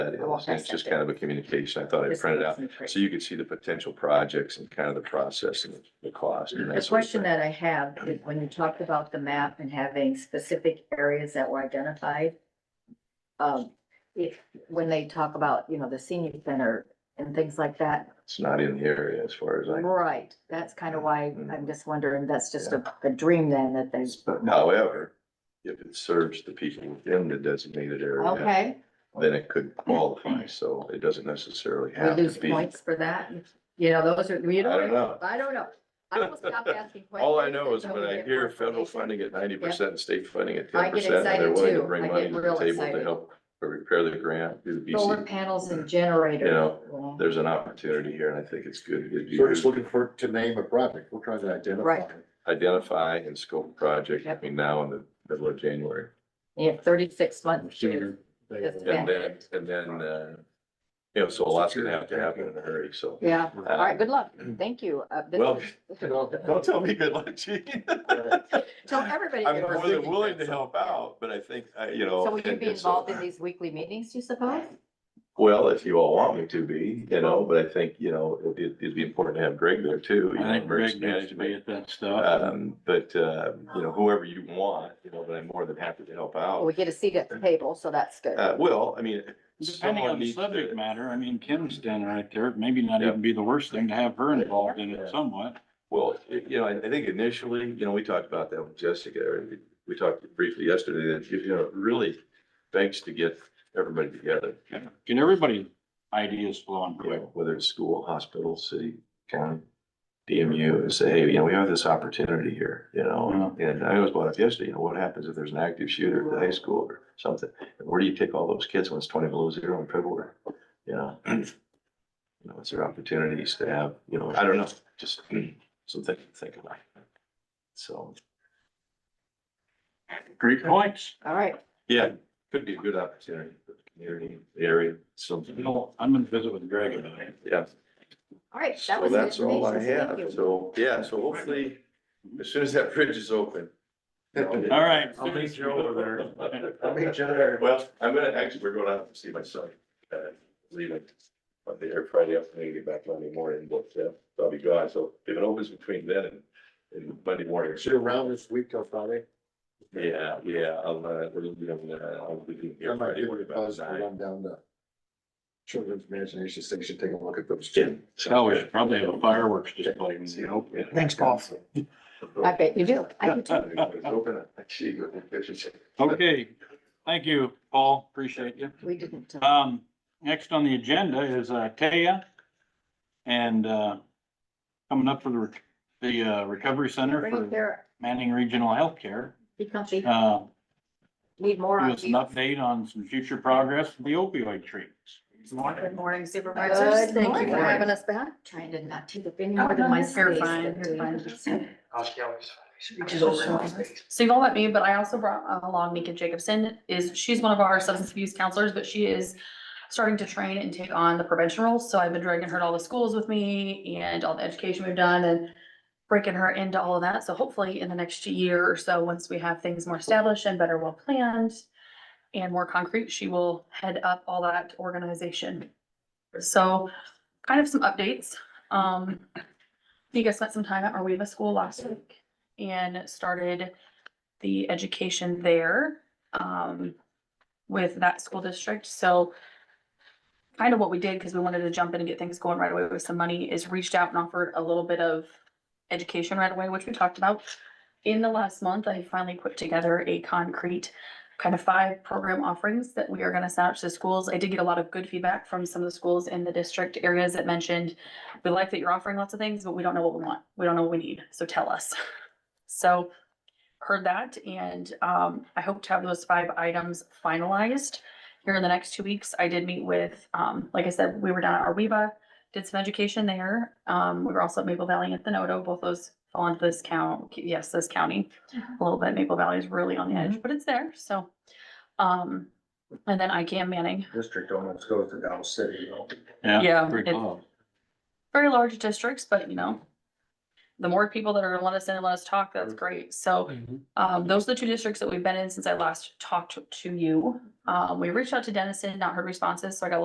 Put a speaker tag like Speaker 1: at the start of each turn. Speaker 1: was, it's just kind of a communication. I thought I printed out. So you could see the potential projects and kind of the process and the cost and that
Speaker 2: The
Speaker 1: sort of
Speaker 2: question
Speaker 1: thing.
Speaker 2: that I have, is when you talked about the map and having specific areas that were identified, um, if, when they talk about, you know, the senior center and things like that,
Speaker 1: It's not in the area as far as I.
Speaker 2: right, that's kind of why
Speaker 1: Mm-hmm.
Speaker 2: I'm just wondering, that's just a, a dream then that they,
Speaker 1: However, if it serves the people within the designated area,
Speaker 2: okay,
Speaker 1: then it could qualify. So it doesn't necessarily
Speaker 2: we
Speaker 1: have to
Speaker 2: lose
Speaker 1: be. I
Speaker 2: points for that. You know, those are, you
Speaker 1: don't
Speaker 2: know,
Speaker 1: know.
Speaker 2: I don't know. I will stop asking questions.
Speaker 1: All I know is when
Speaker 2: until we
Speaker 1: I
Speaker 2: get
Speaker 1: hear federal
Speaker 2: confirmation.
Speaker 1: funding at ninety percent, state funding at ten
Speaker 2: I get
Speaker 1: percent, and they're
Speaker 2: excited
Speaker 1: willing to
Speaker 2: too. I
Speaker 1: bring
Speaker 2: get
Speaker 1: money to the
Speaker 2: real
Speaker 1: table to
Speaker 2: excited.
Speaker 1: help repair the grant, do the
Speaker 2: Solar
Speaker 1: BC.
Speaker 2: panels and generators.
Speaker 1: You know,
Speaker 2: Well,
Speaker 1: There's an opportunity here and I think it's good. It'd be
Speaker 3: So we're just
Speaker 1: good
Speaker 3: looking for, to name a project, we're trying to identify.
Speaker 2: Right.
Speaker 1: to Identify and scope project
Speaker 2: Yep.
Speaker 1: between now and the middle of January.
Speaker 2: You have thirty-six months to
Speaker 3: Senior, they-
Speaker 2: That's
Speaker 1: And
Speaker 2: Yeah.
Speaker 1: then, and then, uh, you know, so a lot's gonna have to happen in a hurry, so.
Speaker 2: Yeah, all right,
Speaker 1: Um,
Speaker 2: good luck. Thank you. Uh, this
Speaker 1: Well,
Speaker 2: is-
Speaker 1: don't tell me good luck, Gene.
Speaker 2: Tell everybody.
Speaker 1: I'm
Speaker 2: good luck.
Speaker 1: more than willing to help out, but I think, I, you know.
Speaker 2: So will you
Speaker 1: and-
Speaker 2: be
Speaker 1: and so-
Speaker 2: involved in these weekly meetings, you suppose?
Speaker 1: Uh, Well, if you all want me to be, you know, but I think, you know, it- it, it'd be important to have Greg there too. you know,
Speaker 4: I think
Speaker 1: emergency
Speaker 4: Greg needs to be
Speaker 1: management.
Speaker 4: at that stuff.
Speaker 1: Um, but, uh, you know, whoever you want, you know, but I'm more than happy to help
Speaker 2: Well,
Speaker 1: out.
Speaker 2: We get a seat at the table, so that's good.
Speaker 1: Uh, well, I mean,
Speaker 4: Depending
Speaker 1: someone
Speaker 4: on the
Speaker 1: needs to-
Speaker 4: subject matter, I mean, Kim's standing right there, maybe not
Speaker 1: Yeah.
Speaker 4: even be the worst thing to have her involved in it somewhat.
Speaker 1: Well, it- you know, I, I think initially, you know, we talked about that with Jessica, or we- we talked briefly yesterday, that, you know, really thanks to get everybody together,
Speaker 4: Get everybody ideas flowing
Speaker 1: you
Speaker 4: quick.
Speaker 1: know, whether it's school, hospital, city, county, DMU, and say, hey, you know, we have this opportunity here, you
Speaker 4: Mm-hmm.
Speaker 1: know? And I always brought up yesterday, you know, what happens if there's an active shooter at the high school or something? Where do you take all those kids when it's twenty below zero in February? You know? You know, is there opportunities to have, you know, I don't know, just something to think about. So.
Speaker 4: Great points.
Speaker 2: All right,
Speaker 1: Yeah, could be a good opportunity for the community, the area,
Speaker 4: You
Speaker 1: something.
Speaker 4: know, I'm gonna visit with Greg about it.
Speaker 1: Yeah,
Speaker 2: all right. That
Speaker 1: so
Speaker 2: was the
Speaker 1: that's all I
Speaker 2: information.
Speaker 1: have.
Speaker 2: Thank you.
Speaker 1: So, yeah, so hopefully, as soon as that bridge is open.
Speaker 4: All right.
Speaker 5: I'll meet you over
Speaker 4: there.
Speaker 3: I'll meet you there.
Speaker 1: Well, I'm gonna, actually, we're going out to see my son, uh, leaving Monday or Friday afternoon, get back Monday morning, but, uh, I'll be gone. So if it opens between then and, and Monday morning.
Speaker 3: Is it around this week till Friday?
Speaker 1: Yeah, yeah, I'll, uh, we'll, be on, uh, I'll be
Speaker 3: I
Speaker 1: here
Speaker 3: might
Speaker 1: Friday.
Speaker 3: be
Speaker 1: what
Speaker 3: able to
Speaker 1: about
Speaker 3: pause and
Speaker 1: nine?
Speaker 3: run down the children's imagination station, take a look at those.
Speaker 1: Yeah.
Speaker 4: Hell, Oh, we should probably have a fireworks display. in the open.
Speaker 3: Thanks, Paul.
Speaker 2: I bet you do. I do too.
Speaker 1: Uh,
Speaker 4: Okay, thank you, Paul. Appreciate you.
Speaker 2: We didn't. uh,
Speaker 4: Um, next on the agenda is, uh, Taya. And, uh, coming up for the, rec- the, uh, Recovery Center
Speaker 2: Right
Speaker 4: for
Speaker 2: there,
Speaker 4: Manning Regional Healthcare.
Speaker 2: be comfy.
Speaker 4: Uh,
Speaker 2: Need more
Speaker 4: Give
Speaker 2: on
Speaker 4: us an
Speaker 2: you.
Speaker 4: update on some future progress with the opioid treatments.
Speaker 5: Good morning
Speaker 2: Good,
Speaker 5: supervisors.
Speaker 2: thank you
Speaker 5: Good
Speaker 2: for
Speaker 5: morning.
Speaker 2: having us back. Trying to not take up any
Speaker 5: Oh,
Speaker 2: more than my
Speaker 5: no, you're
Speaker 2: space.
Speaker 5: fine,
Speaker 2: that
Speaker 5: you're
Speaker 2: we-
Speaker 5: So you won't let me, but I also brought along Mika Jacobson is, she's one of our substance abuse counselors, but she is starting to train and take on the prevention roles. So I've been dragging her to all the schools with me and all the education we've done and breaking her into all of that. So hopefully in the next year or so, once we have things more established and better well planned and more concrete, she will head up all that organization. So kind of some updates. Um, Mika spent some time at Arweva School last week and started the education there um, with that school district. So kind of what we did, because we wanted to jump in and get things going right away with some money, is reached out and offered a little bit of education right away, which we talked about. In the last month, I finally put together a concrete kind of five program offerings that we are going to send out to the schools. I did get a lot of good feedback from some of the schools in the district areas that mentioned, we like that you're offering lots of things, but we don't know what we want. We don't know what we need, so tell us. So heard that and um I hope to have those five items finalized here in the next two weeks. I did meet with, um, like I said, we were down at Arweva, did some education there. Um, we were also at Maple Valley and Thenoto, both those fall into this count, yes, this county. A little bit, Maple Valley is really on the edge, but it's there, so. Um, and then ICAM Manning,
Speaker 3: District almost goes to Dallas City, though.
Speaker 5: Yeah,
Speaker 4: Pretty
Speaker 5: it's-
Speaker 4: close.
Speaker 5: very large districts, but you know, the more people that are gonna let us in and let us talk, that's great. So Um, those are the two districts that we've been in since I last talked to you. Um, we reached out to Dennison, not heard responses, so I got a